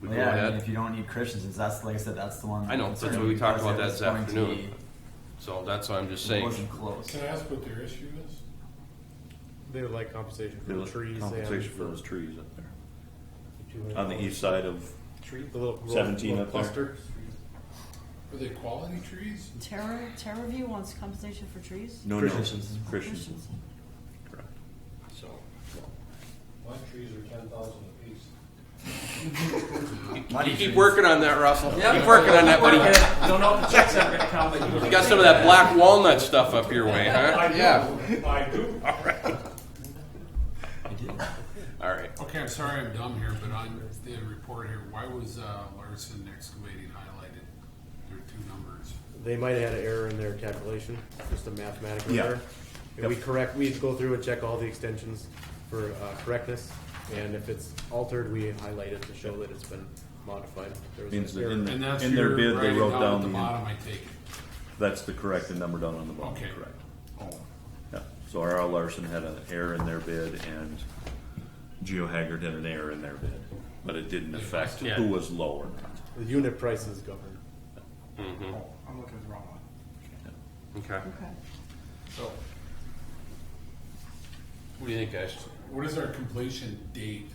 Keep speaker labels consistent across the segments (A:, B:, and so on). A: we
B: Well,
A: go
B: yeah, I mean,
A: ahead.
B: if you don't need Christensen, that's like I said, that's the one.
A: I know, that's what we talked about that this afternoon. So that's what I'm just saying.
B: Wasn't close.
C: Can I ask what their issue is?
D: They would like compensation for
E: They
D: the
E: want
D: trees. they have
E: Compensation for those trees up there,
D: two hundred
E: on the east side of,
D: Tree, the little grove,
E: 17
D: little
E: up there.
D: cluster.
C: Are they quality trees?
F: Terra, Terra View wants compensation for trees?
E: no, no,
B: Christensen's.
E: Christians,
F: Christensen.
E: correct.
C: So, my trees are ten thousand apiece.
A: You keep working on that, Russell. Keep working on that, buddy.
G: Don't know if the checks are gonna come, but
A: You got some of that black walnut stuff up your way, huh? Yeah.
G: I do.
B: I did.
A: All right.
C: Okay, I'm sorry I'm dumb here, but on the report here, why was uh, Larson excavating highlighted? There are two numbers.
D: They might have had an error in their calculation, just a mathematical
E: Yeah.
D: error. If
E: Yep.
D: we correct, we go through and check all the extensions for uh, correctness, and if it's altered, we highlight it to show that it's been modified. There was an
E: Means that
D: error.
E: in
C: And
E: the,
C: that's
E: in their
C: your
E: bid, they
C: writing
E: wrote
C: down at the
E: down the,
C: bottom, I take it.
E: that's the correct, the number down on the bottom,
C: Okay.
E: correct. Yeah, so R.L. Larson had an error in their bid and Geo Haggard had an error in their bid, but it didn't affect
A: Yeah.
E: who was low or not.
D: The unit price is governed.
G: I'm looking at the wrong one.
A: Okay.
F: Okay.
C: So,
A: What do you think, guys?
C: what is our completion date?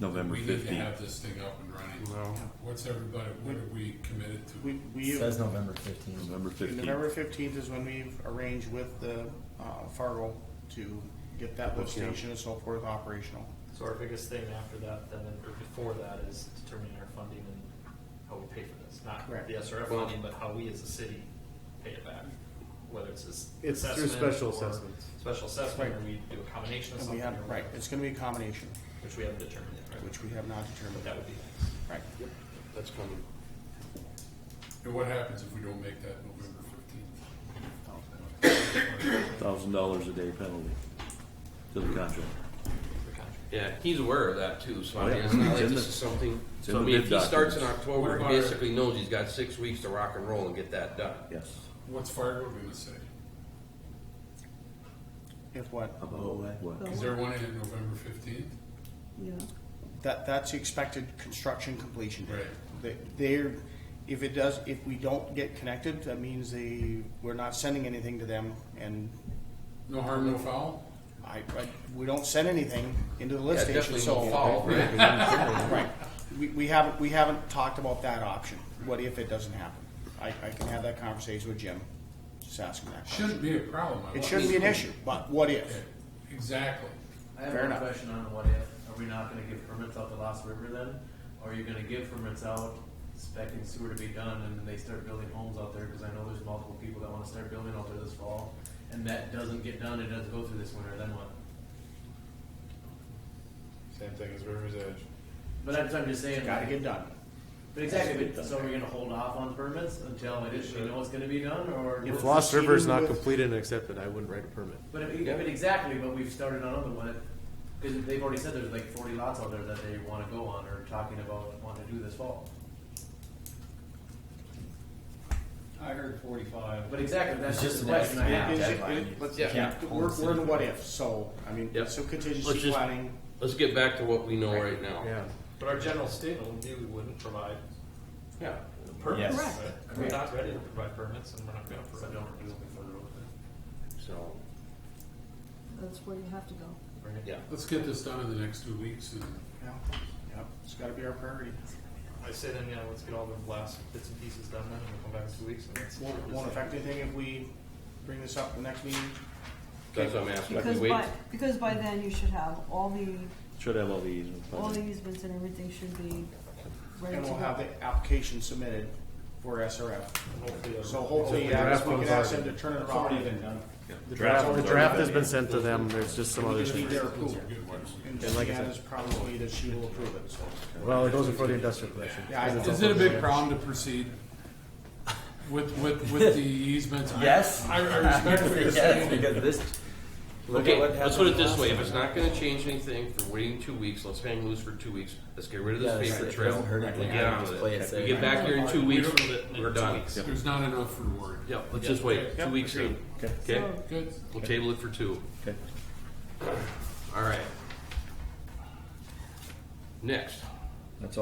E: November
C: We need to
E: fifteenth.
C: have this thing up and running. What's everybody, what are we committed to?
G: We, we,
B: It says November fifteenth.
E: November
G: November
E: fifteenth.
G: fifteenth is when we've arranged with the, uh, Fargo to get that lift
A: Yeah.
G: station and so forth operational.
H: So our biggest thing after that, then, or before that, is determining our funding and how we pay for this. Not
G: Correct.
H: the SRF
A: Well-
H: funding, but how we as a city pay it back, whether it's this.
D: It's through
H: assessment
D: special
H: or
D: assessments.
H: Special assessment, or
G: Right.
H: we do a combination of
G: And we
H: something.
G: have,
H: or
G: right,
H: whatever,
G: it's gonna be a combination,
H: Which we haven't determined yet, right?
G: which we have not
H: But
G: determined.
H: that would be next.
G: Right.
A: That's coming.
C: And what happens if we don't make that November fifteenth?
E: Thousand dollars a day penalty to the contract.
A: Yeah, he's aware of that too, so I
E: Oh,
A: mean,
E: yeah.
A: it's not
E: It's
A: like
E: in
A: this
E: the-
A: is something,
E: it's in
A: so I
E: the
A: mean, if
E: bid
A: he starts
E: documents.
A: in
C: What
A: October,
C: about
A: he
C: our-
A: basically knows he's got six weeks to rock and roll and get that done.
E: Yes.
C: What's Fargo gonna say?
G: If what?
E: About what?
C: Is there one in November fifteenth?
F: Yeah.
G: That, that's the expected construction completion date.
C: Right.
G: They- They're, if it does, if we don't get connected, that means they, we're not sending anything to them, and
C: No harm, no foul?
G: I, I, we don't send anything into the
A: Yeah,
G: lift station,
A: definitely
G: so.
A: no fall, right?
G: Right, we, we haven't, we haven't talked about that option, what if it doesn't happen? I, I can have that conversation with Jim, just ask him that question.
C: Shouldn't be a problem. I
G: It
C: want-
G: shouldn't be an issue, but what if?
C: Exactly.
I: I have
G: Fair
I: one
G: enough.
I: question on what if. Are we not gonna give permits out to Lost River then? Or are you gonna give permits out, expecting sewer to be done, and then they start building homes out there? Cause I know there's multiple people that wanna start building out there this fall, and that doesn't get done, it doesn't go through this winter, then what?
D: Same thing as River's Edge.
I: But that's what I'm just saying.
G: Gotta get done.
I: But exactly, but so are we gonna hold off on permits until it is, we know it's gonna be done, or?
D: If
I: what's
D: Lost
I: the
D: River is
I: scheme
D: not
I: with-
D: completed and accepted, I wouldn't write a permit.
I: But I mean, I mean, exactly, but we've started on another one, cause they've already said there's like forty lots out there that they wanna go on, or talking about wanting to do this fall.
C: I heard forty-five.
I: But exactly,
B: It's
I: that's
B: just
I: just the
B: an
I: question I
B: estimate.
I: have.
G: Is it-
B: deadline.
G: it- let's-
A: Yeah.
B: Yeah.
G: We're, we're in what if, so, I mean,
A: Yep.
G: so
A: Let's
G: contingency
A: just-
G: planning,
A: Let's get back to what we know right now.
D: Yeah.
H: But our general statement would be we wouldn't provide
A: Yeah.
H: permits.
B: Yes.
H: right? We're not ready to provide permits and we're not gonna
I: So
H: provide.
I: don't do it before the road.
A: So,
F: That's where you have to go.
A: yeah.
C: Let's get this done in the next two weeks and
G: yeah, yeah, it's gotta be our priority.
H: I say then, yeah, let's get all the last bits and pieces done then and we'll come back in two weeks and let's.
G: Won't, won't affect anything if we bring this up the next meeting,
A: That's what I'm asking. Like, we
F: Because
A: wait-
F: by, because by then you should have all the,
E: Should have all the easements.
F: all the easements and everything should be ready to
G: and
F: go.
G: we'll have the application submitted for SRF.
H: Hopefully the-
G: So hopefully, yeah, we can ask them to turn it around and
D: The
E: Draft
D: draft, the
E: one's
D: draft has been sent to them, there's just some
G: we
D: other.
G: just need their approval.
C: good ones.
G: And
D: And like I said-
G: Deanna's probably that she will approve it, so.
D: Well, it goes before the industrial commission.
G: Yeah, I-
C: Is it a big problem to proceed with, with, with the easements? I-
B: Yes.
C: I, I respect what you're
B: Yes,
C: saying.
B: because this. look at
A: Okay,
B: what
A: let's put it
B: happened
A: this
B: last
A: way, if
B: time.
A: it's not gonna change anything for waiting two weeks, let's hang loose for two weeks, let's get rid of
B: Yeah,
A: this
B: it's-
A: paper
B: it
A: trail.
B: doesn't hurt
A: and
B: anything.
A: get on
B: Just
A: with
B: play
A: it.
B: it
A: If
B: safe.
A: we get back here in two weeks,
H: don't do it in
A: we're
H: two
A: done.
H: weeks.
C: There's not enough reward.
A: Yeah, let's just wait, two weeks in, okay?
F: So-
C: Good.
A: We'll table it for two.
E: Okay.
A: All right. Next,